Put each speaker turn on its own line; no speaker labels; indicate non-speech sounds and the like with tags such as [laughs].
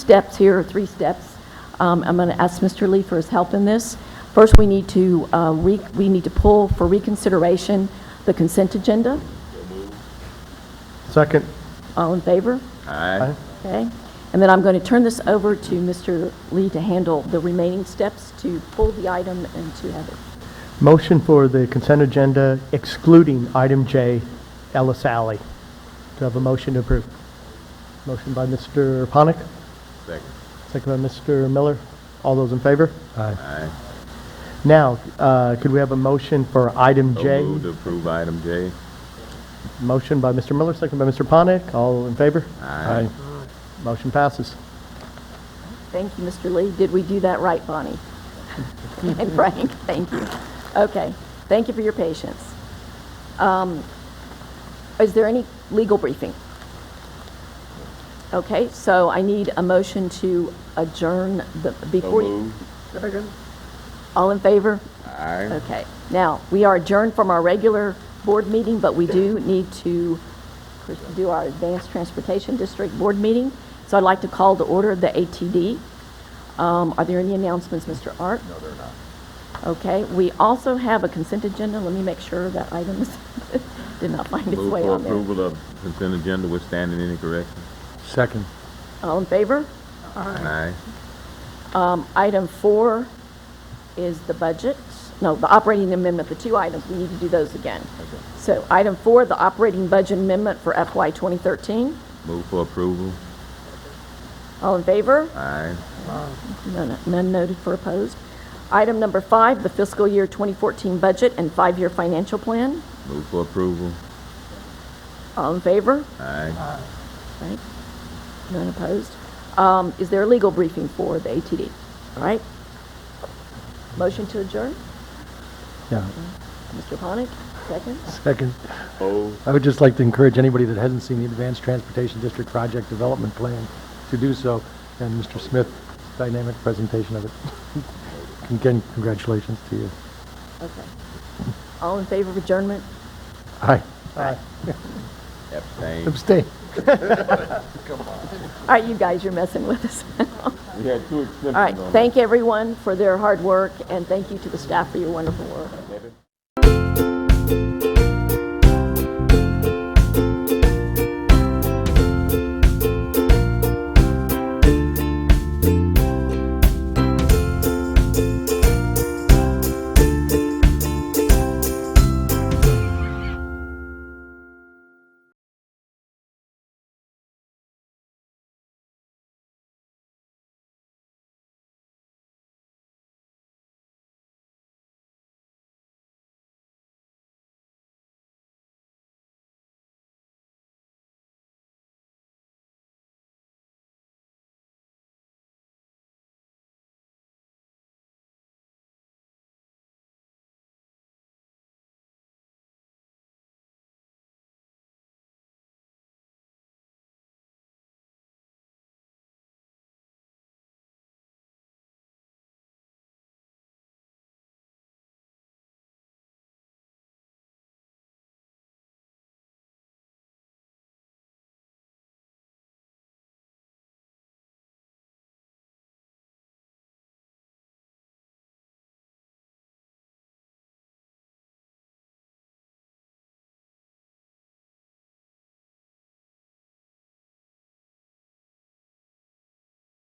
steps here, or three steps. Um, I'm going to ask Mr. Lee for his help in this. First, we need to, uh, re- we need to pull for reconsideration the consent agenda.
Second.
All in favor?
Aye.
Okay. And then I'm going to turn this over to Mr. Lee to handle the remaining steps to pull the item and to have it.
Motion for the consent agenda excluding item J, Ellis Alley. Do I have a motion to approve? Motion by Mr. Ponik,
Second.
second by Mr. Miller. All those in favor? Aye. Now, uh, could we have a motion for item
So
J?
Move to approve item J.
Motion by Mr. Miller, second by Mr. Ponik. All in favor?
Aye.
Motion passes.
Thank you, Mr. Lee. Did we do that right, Bonnie? [laughs] And Frank, thank you. Okay, thank you for your patience. Um, Is there any legal briefing? Okay, so I need a motion to adjourn the,
So
before, you-
moved.
all in favor?
Aye.
Okay, now, we are adjourned from our regular board meeting, but we do need to do our Advanced Transportation District Board meeting. So I'd like to call to order the ATD. Um, Are there any announcements, Mr. Art? No, there are not. Okay, we also have a consent agenda. Let me make sure that items [laughs] did not find its
Move
way
for
on there.
approval of consent agenda with standing any corrections.
Second.
All in favor?
Aye.
Um, Item four is the budget, no, the operating amendment, the two items, we need to do those again. So item four, the operating budget amendment for FY 2013.
Move for approval.
All in favor?
Aye.
None none noted for opposed. Item number five, the fiscal year 2014 budget and five-year financial plan.
Move for approval.
All in favor?
Aye.
Right? None opposed? Um, Is there a legal briefing for the ATD? All right? Motion to adjourn?
Yeah,
Mr. Ponik, second?
second.
Oh.
I would just like to encourage anybody that hasn't seen the Advanced Transportation District Project Development Plan to do so, and Mr. Smith's dynamic presentation of it. [laughs] Again, congratulations to you.
Okay. All in favor of adjournment?
Aye,
Aye.
Abstain.
abstain.
All right, you guys, you're messing with us. All
We had two exemptions
right,
on that.
thank everyone for their hard work, and thank you to the staff for your wonderful work.